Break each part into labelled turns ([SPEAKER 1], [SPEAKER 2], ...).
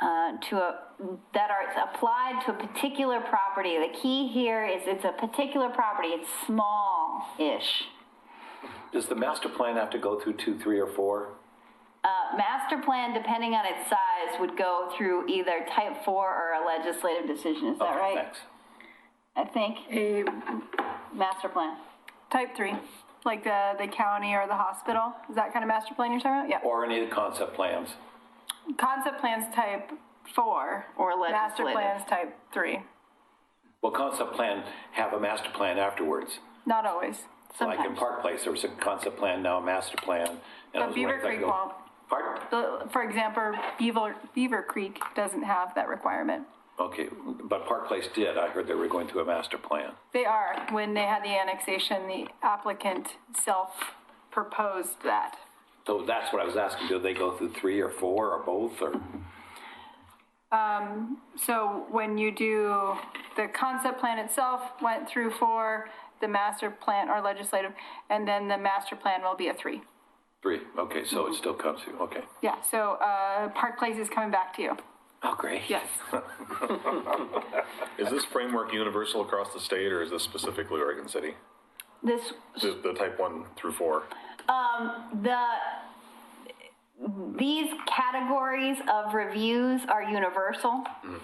[SPEAKER 1] uh, to a, that are applied to a particular property. The key here is it's a particular property, it's small-ish.
[SPEAKER 2] Does the master plan have to go through two, three, or four?
[SPEAKER 1] Uh, Master plan, depending on its size, would go through either type four or a legislative decision, is that
[SPEAKER 2] Okay,
[SPEAKER 1] right?
[SPEAKER 2] Thanks.
[SPEAKER 1] I think,
[SPEAKER 3] a
[SPEAKER 1] master plan.
[SPEAKER 3] type three, like the, the county or the hospital? Is that kind of master plan you're talking about? Yeah.
[SPEAKER 2] Or any of the concept plans?
[SPEAKER 3] Concept plans type four.
[SPEAKER 1] Or
[SPEAKER 3] Master
[SPEAKER 1] legislative.
[SPEAKER 3] plans type three.
[SPEAKER 2] Well, concept plan have a master plan afterwards.
[SPEAKER 3] Not always.
[SPEAKER 2] Like in
[SPEAKER 1] Sometimes.
[SPEAKER 2] Park Place, there was a concept plan, now a master plan. and I was
[SPEAKER 3] Beaver
[SPEAKER 2] wondering if I
[SPEAKER 3] Creek
[SPEAKER 2] go-
[SPEAKER 3] won't.
[SPEAKER 2] Pardon?
[SPEAKER 3] The- For example, Beaver, Beaver Creek doesn't have that requirement.
[SPEAKER 2] Okay, but Park Place did. I heard they were going through a master plan.
[SPEAKER 3] They are. When they had the annexation, the applicant self-proposed that.
[SPEAKER 2] So that's what I was asking. Do they go through three or four or both or?
[SPEAKER 3] So when you do, the concept plan itself went through four, the master plan or legislative, and then the master plan will be a three.
[SPEAKER 2] Three, okay, so
[SPEAKER 1] Mm-hmm.
[SPEAKER 2] it still comes through, okay.
[SPEAKER 3] Yeah, so uh, Park Place is coming back to you.
[SPEAKER 2] Oh, great.
[SPEAKER 3] Yes.
[SPEAKER 4] Is this framework universal across the state, or is this specifically Oregon City?
[SPEAKER 1] This,
[SPEAKER 4] The, the type one through four?
[SPEAKER 1] the, these categories of reviews are universal.
[SPEAKER 2] Mm.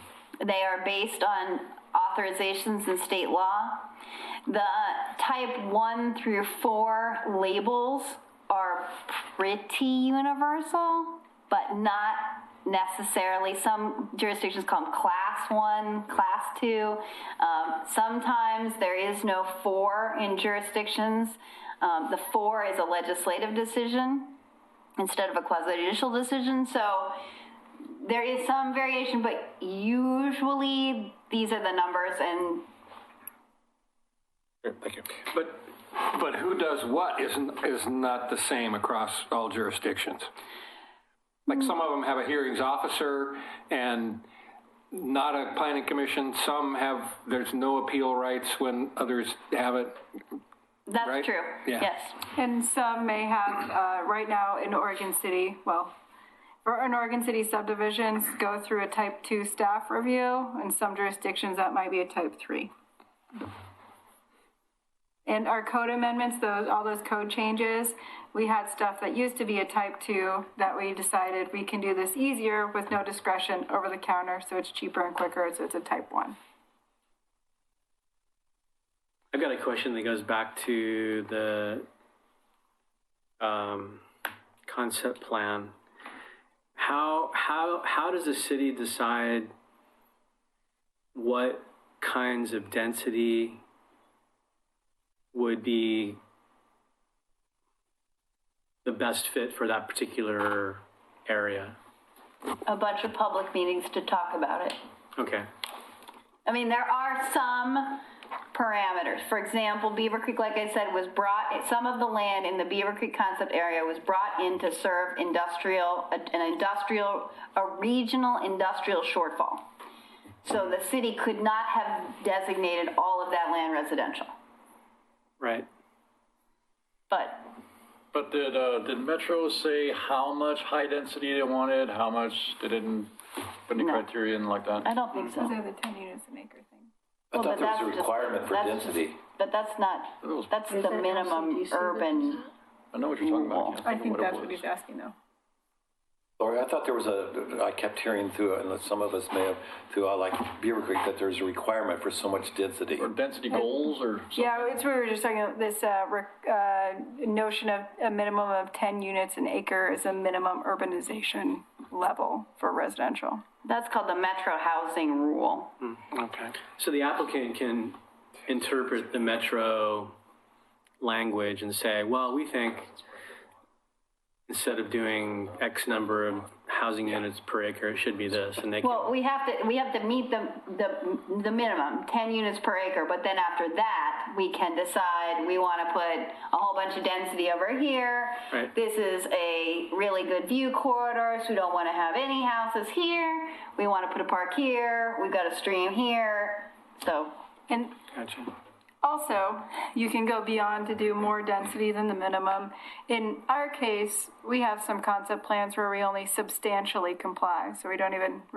[SPEAKER 1] They are based on authorizations in state law. The type one through four labels are pretty universal, but not necessarily. Some jurisdictions call them class one, class two. Um, sometimes there is no four in jurisdictions. Um, the four is a legislative decision instead of a quasi judicial decision. So there is some variation, but usually these are the numbers and
[SPEAKER 4] Thank you.
[SPEAKER 5] But, but who does what isn't, is not the same across all jurisdictions. Like some of them have a hearings officer and not a planning commission. Some have, there's no appeal rights when others have it.
[SPEAKER 1] that's
[SPEAKER 5] Right?
[SPEAKER 1] true.
[SPEAKER 5] Yeah.
[SPEAKER 1] Yes.
[SPEAKER 3] And some may have, uh, right now in Oregon City, well, for in Oregon City subdivisions go through a type two staff review, and some jurisdictions that might be a type three. And our code amendments, those, all those code changes, we had stuff that used to be a type two that we decided we can do this easier with no discretion over the counter, so it's cheaper and quicker, so it's a type one.
[SPEAKER 6] I've got a question that goes back to the um, concept plan. How how how does the city decide what kinds of density would be the best fit for that particular area?
[SPEAKER 1] A bunch of public meetings to talk about it.
[SPEAKER 6] Okay.
[SPEAKER 1] I mean, there are some parameters. For example, Beaver Creek, like I said, was brought, some of the land in the Beaver Creek concept area was brought in to serve industrial, an industrial, a regional industrial shortfall. So the city could not have designated all of that land residential.
[SPEAKER 6] Right.
[SPEAKER 1] But
[SPEAKER 7] But did, uh, did Metro say how much high density they wanted, how much, they didn't put any
[SPEAKER 1] No.
[SPEAKER 7] criteria in like that?
[SPEAKER 1] I don't think so.
[SPEAKER 3] Those are the ten units an acre thing.
[SPEAKER 2] I
[SPEAKER 1] Well, but
[SPEAKER 2] thought there was
[SPEAKER 1] that's
[SPEAKER 2] a
[SPEAKER 1] just-
[SPEAKER 2] requirement for
[SPEAKER 1] that's just-
[SPEAKER 2] density.
[SPEAKER 1] But that's not, that's the minimum urban.
[SPEAKER 7] I know what you're talking about. can't
[SPEAKER 3] I think
[SPEAKER 7] what it
[SPEAKER 3] that's what
[SPEAKER 7] was.
[SPEAKER 3] he's asking though.
[SPEAKER 2] Lori, I thought there was a, I kept hearing through, and some of us may have, throughout like Beaver Creek, that there's a requirement for so much density.
[SPEAKER 7] Or density goals or something?
[SPEAKER 3] Yeah, it's what we were just talking about, this uh, rec- uh, notion of a minimum of 10 units an acre is a minimum urbanization level for residential.
[SPEAKER 1] That's called the metro housing rule.
[SPEAKER 6] Okay. So the applicant can interpret the metro language and say, well, we think instead of doing X number of housing units per acre, it should be this, and they can,
[SPEAKER 1] Well, we have to, we have to meet the, the, the minimum, 10 units per acre, but then after that, we can decide, we want to put a whole bunch of density over here.
[SPEAKER 6] Right.
[SPEAKER 1] This is a really good view corridor, so we don't want to have any houses here. We want to put a park here, we've got a stream here, so.
[SPEAKER 3] And also, you can go beyond to do more density than the minimum. In our case, we have some concept plans where we only substantially comply, so we don't even